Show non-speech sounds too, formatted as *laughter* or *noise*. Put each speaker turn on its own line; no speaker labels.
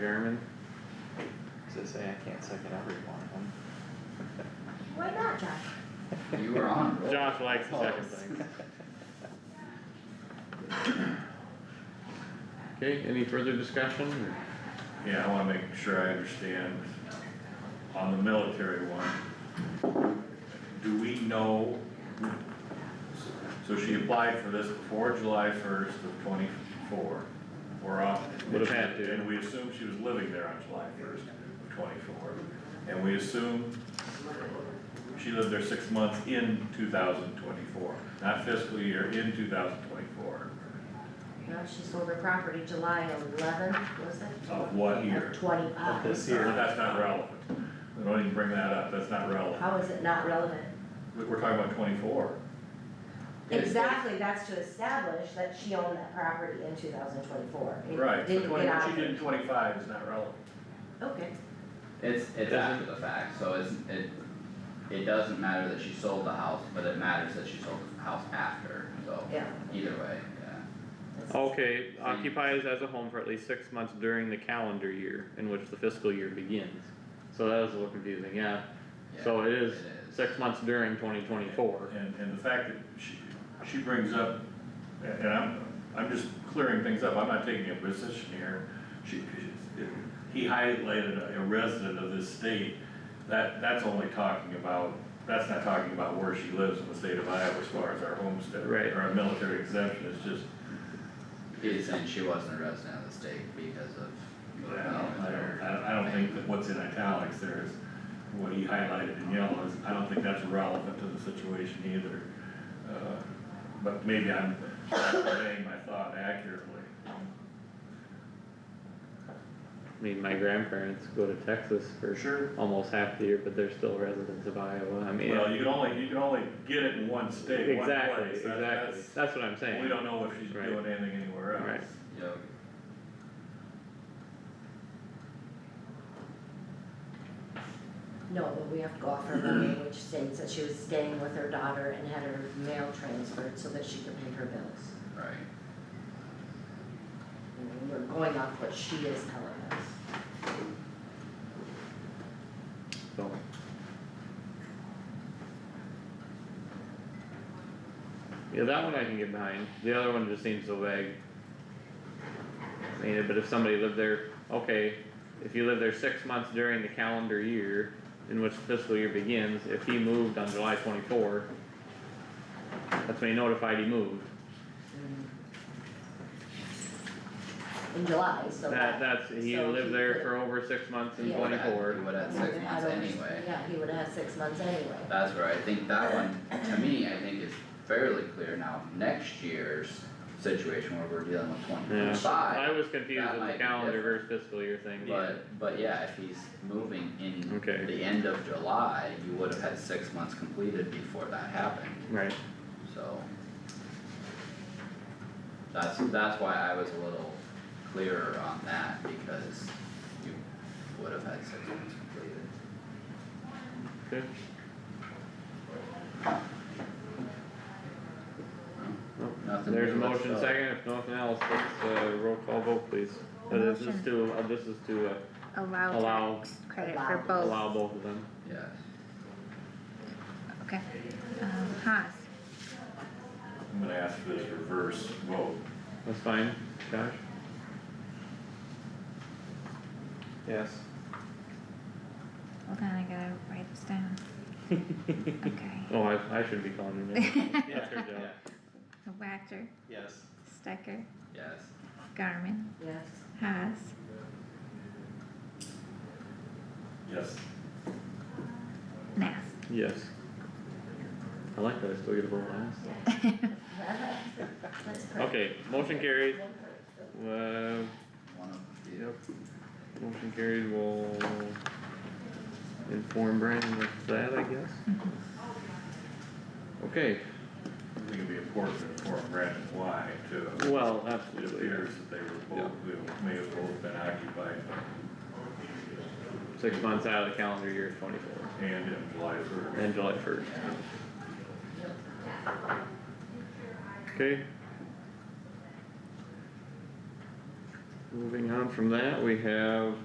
Chairman, to say I can't second every one of
Why not, Josh?
them.
You were on. roll.
Josh likes to second
Pause.
things. Oh, *laughs* Okay, any further discussion? or-
Yeah, I wanna make sure I understand, on the military one, do we know? So she applied for this before July first of twenty-four, or on.
Would have had to.
And we assume she was living there on July first of twenty-four, and we assume she lived there six months in two thousand twenty-four, not fiscal year, in two thousand twenty-four,
No, she sold her property July eleventh, was it?
of what year?
Of twenty-five.
Of this
But
year.
That's not relevant, don't even bring that up, that's not relevant.
How is it not relevant?
We- We're talking about twenty-four.
Yes.
Exactly, that's to establish that she owned that property in two thousand twenty-four.
Right, so
Didn't
twenty,
get
what
out.
you did in twenty-five is not relevant.
Okay,
It's, it's
Doesn't-
after the fact, so it's, it, it doesn't matter that she sold the house, but it matters that she sold the house after, so
yeah.
either way, yeah.
that's-
Okay, occupies as a home for at least six months during the calendar year in which the fiscal year begins. So that is a little confusing, yeah. So
Yeah,
it is six months during twenty twenty-four.
And, and the fact that she, she brings up, and and I'm, I'm just clearing things up, I'm not taking a position here. She, he highlighted a resident of this state, that, that's only talking about, that's not talking about where she lives in the state of Iowa as far as our homestead.
Right.
Or our military exemption, it's just,
He's saying she wasn't a resident of the state because of
I don't,
movement
I
or-
don't, I don't- I don't think that what's in italics there is, what he highlighted in yellow is, I don't think that's relevant to the situation either. Uh, But maybe I'm not conveying my thought accurately.
I mean, my grandparents go to Texas for
Sure.
almost half the year, but they're still residents of Iowa. I mean,
Well, you can only, you can only get it in one state, one
exactly,
place. That-
exactly.
that's-
That's what I'm saying.
We don't know if she's
Right.
doing anything anywhere else.
Right.
Yep.
No, but we have to go off her money, which states that she was staying with her daughter and had her mail transferred so that she could pay her bills.
right,
And We're going off what she is telling us.
So, Yeah, that one I can get behind, the other one just seems so vague. I mean, but if somebody lived there, okay, if you lived there six months during the calendar year in which fiscal year begins, if he moved on July twenty-four, that's when he notified he moved,
Mm-hmm. In July, so.
that, that's, he
so
lived there
could-
for over six months in
Yeah.
would have-
twenty-four.
He would have
he
six
would've had
months
over-
anyway,
Yeah, he would have had six months
*laughs*
anyway.
that's where I think that one, to me, I think is fairly clear now, next year's situation where we're dealing with twenty
Yeah,
twenty-five.
I was confused
that
with
might
the
be
calendar
different.
versus fiscal year thing, but,
But, but yeah, if he's moving in
Okay.
the end of July, you would have had six months completed before that happened,
right,
so. That's, that's why I was a little clearer on that, because you would have had six months completed.
okay.
Nothing
There's a
new, let's
motion
go.
second, if nothing else, let's, uh, roll call vote, please. Uh, This is
Motion.
to, uh, this is to uh, Allow.
allow tax credit for both,
allow both of them.
Yes,
okay. Um, Haas,
I'm gonna ask for this reverse vote.
That's fine, Josh? Yes.
hold on, I gotta write this down. Okay, *laughs*
Oh, I, I should be calling you now. That's her job.
Whacker,
Yes.
Stecker,
yes,
Garmin,
Yes.
Haas,
Yes.
Nass.
Yes. I like that, I still get a vote last.
*laughs* That's perfect.
Okay, motion carried, uh,
one of you.
Yep. Motion carried, we'll inform Brandon of that, I guess. Okay,
I think it'd be important to inform Brandon why too.
well,
It
absolutely,
appears that they were both, they may have both been occupied
six months out of the calendar year twenty-four,
and in July first.
and July first. Okay. Moving on from that, we have